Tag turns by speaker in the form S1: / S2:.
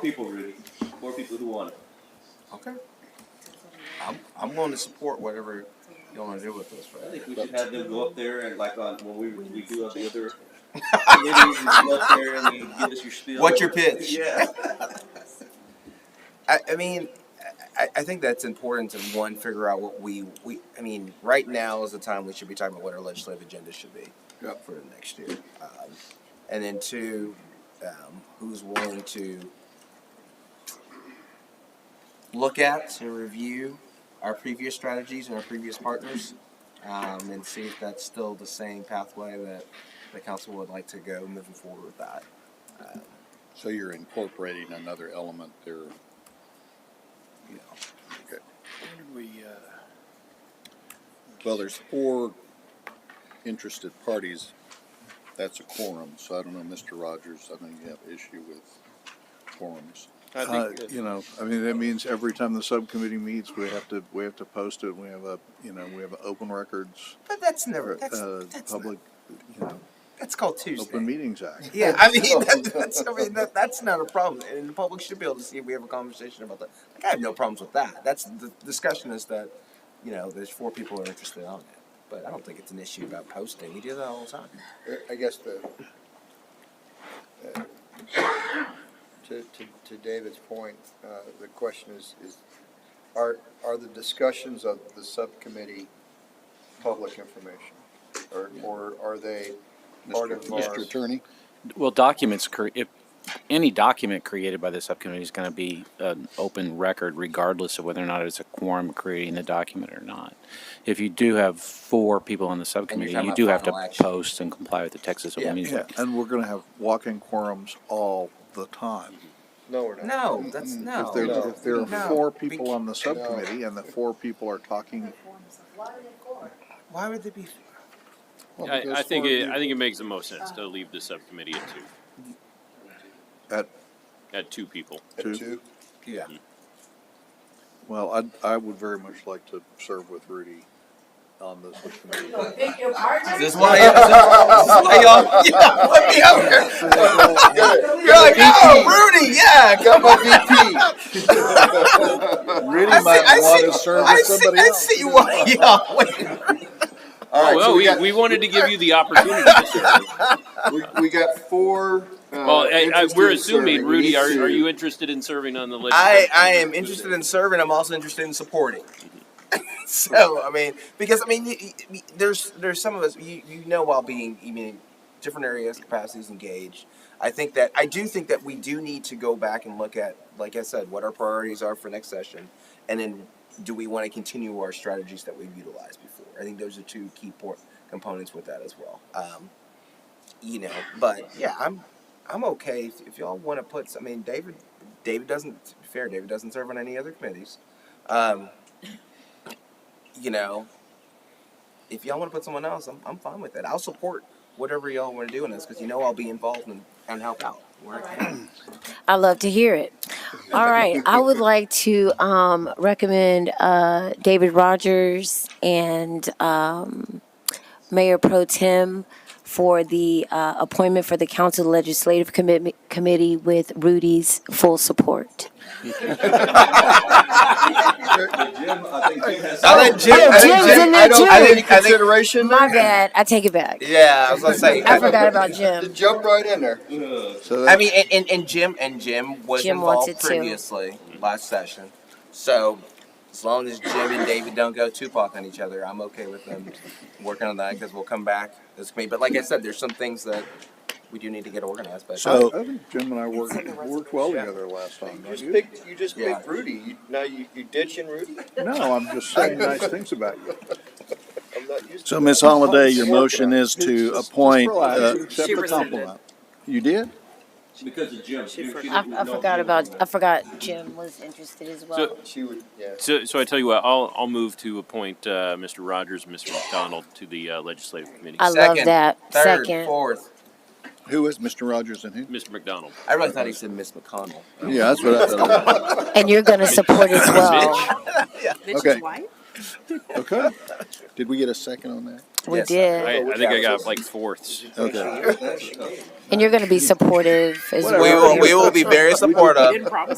S1: people, Rudy. More people who want it.
S2: Okay. I'm, I'm going to support whatever you want to do with this,
S1: I
S2: right?
S1: think we should have them go up there and like on when we we do all the other committees, we go up there and you give us your spiel.
S2: What's your pitch?
S1: Yeah.
S2: I, I mean, I, I think that's important to one figure out what we we. I mean, right now is the time we should be talking about what our legislative agenda should be
S3: Yep.
S2: for the next year, um, and then two, um, who's willing to look at and review our previous strategies and our previous partners, um, and see if that's still the same pathway that the council would like to go moving forward with that.
S3: So you're incorporating another element there.
S2: You know.
S3: Okay.
S4: We, uh,
S3: Well, there's four interested parties. That's a quorum, so I don't know, Mr. Rogers, I know you have issue with quorums.
S5: Uh, you know, I mean, that means every time the subcommittee meets, we have to, we have to post it, we have a, you know, we have an open records,
S2: But that's never that's,
S5: uh,
S2: that's not-
S5: public, you know,
S2: That's called Tuesday.
S5: Open Meetings Act.
S2: Yeah, I mean, that, that's, I mean that, that's not a problem, and the public should be able to see if we have a conversation about that. Like, I have no problems with that. That's the discussion is that, you know, there's four people who are interested on it, but I don't think it's an issue about posting. We do that all the time.
S6: I- I guess the, uh, to, to, to David's point, uh, the question is, is are, are the discussions of the subcommittee public information? Or, or are they part
S3: Mr.
S6: of our?
S3: Mr. Attorney,
S7: Well, documents, cre- if any document created by the subcommittee is going to be an open record regardless of whether or not it's a quorum creating the document or not. If you do have four people on the subcommittee,
S2: talking
S7: you
S2: about
S7: do have to
S2: final action.
S7: post and comply with the Texas Open
S2: Yeah.
S7: Meetings
S5: Yeah,
S7: Act.
S5: and we're gonna have walking quorums all the time.
S6: No, we're not.
S2: No, that's no.
S5: If there,
S6: No.
S5: if there are
S2: No.
S5: four people on the subcommittee and the four people are talking,
S2: Why would they be?
S3: well,
S8: I,
S3: because
S8: I think
S3: four
S8: it,
S3: people-
S8: I think it makes the most sense to leave the subcommittee at two,
S5: at,
S8: at two people.
S6: At
S5: Two.
S6: two?
S2: Yeah.
S5: well, I, I would very much like to serve with Rudy on the subcommittee.
S9: Pick your partner.
S2: This is why. This is why y'all. Yeah, let me out here. You're like, oh, Rudy. Yeah, come on.
S3: Really
S2: I see- I
S3: might want to
S2: see-
S3: serve
S2: I
S3: with
S2: see.
S3: somebody
S2: I
S3: else.
S2: see why y'all. Wait.
S6: All right, so
S8: Well,
S6: we
S8: we,
S6: got,
S8: we wanted to give you the opportunity to serve.
S6: we, we got four, uh.
S8: Well, I- I,
S6: interested
S8: we're
S6: in
S8: assuming,
S6: serving. We
S8: Rudy,
S6: need
S8: are,
S6: to-
S8: are you interested in serving on the
S2: I,
S8: legislature?
S2: I am interested in serving. I'm also interested in supporting. so I mean, because I mean, you, you- there's there's some of us you, you know while being I mean, different areas capacities engaged. I think that I do think that we do need to go back and look at, like I said, what our priorities are for next session, and then do we want to continue our strategies that we've utilized before? I think those are two key port components with that as well. Um, you know, but yeah, I'm I'm okay if, if y'all want to put. I mean, David David doesn't. To be fair, David doesn't serve on any other committees. Um, you know, if y'all want to put someone else, I'm, I'm fine with it. I'll support whatever y'all want to do in this because you know I'll be involved and, and help out. Where I can.
S9: I love to hear it. All right, I would like to um, recommend uh, David Rogers and um, Mayor Pro Tem for the uh, appointment for the Council Legislative Commit- Committee with Rudy's full support.
S1: But Jim, I think Jim has.
S2: I'll let Jim.
S9: Yeah,
S2: I think
S9: Oh, Jim's
S2: Jim-
S9: in
S2: I
S9: there
S2: don't-
S9: too.
S2: I
S6: Any
S2: think, I think,
S6: consideration?
S9: My bad, I take it back.
S2: yeah, I was gonna say.
S9: I forgot about
S6: Just
S9: Jim.
S6: Jump right in there.
S1: Ugh.
S5: So
S2: I
S5: that's,
S2: mean, and, and, and Jim and Jim was
S9: Jim
S2: involved
S9: wanted to.
S2: previously last session, so as long as Jim and David don't go Tupac on each other, I'm okay with them working on that because we'll come back this committee. But like I said, there's some things that we do need to get organized. But
S5: so I think Jim and I worked, worked well together last time.
S6: You
S5: don't
S6: just
S5: you?
S6: picked, you just
S2: Yeah.
S6: picked Rudy. You- Now you, you ditching Rudy?
S5: No, I'm just saying nice things about you.
S6: I'm not used to
S3: So
S6: that.
S3: Ms. Holliday, your
S6: Working
S3: motion
S6: on it.
S3: is to
S5: Just- just
S3: appoint,
S5: relax.
S3: uh,
S5: Accept
S4: She
S5: the
S4: rescinded.
S5: compliment. You did?
S1: Because of Jim. She- she
S9: I,
S1: didn't
S9: I
S1: know
S9: forgot
S1: Jim.
S9: about, I forgot Jim was interested as well.
S6: She would, yeah.
S8: So, so I tell you what, I'll, I'll move to appoint, uh, Mr. Rogers and Mr. McDonald to the uh, legislative committee.
S9: I love
S2: Second,
S9: that.
S2: third,
S9: Second.
S2: fourth.
S3: Who is Mr. Rogers and who?
S8: Mr. McDonald.
S2: I really thought he said Miss McConnell.
S3: Yeah, that's what I thought.
S9: And you're going to support as well.
S8: Mitch?
S3: Okay.
S4: white?
S3: Okay. Did we get a second on that?
S9: We
S2: Yes, I-
S9: did.
S8: I, I think I got like fourths.
S3: Okay.
S9: And you're going to be supportive as
S2: We
S9: well.
S2: will, we will be very supportive.
S4: didn't promise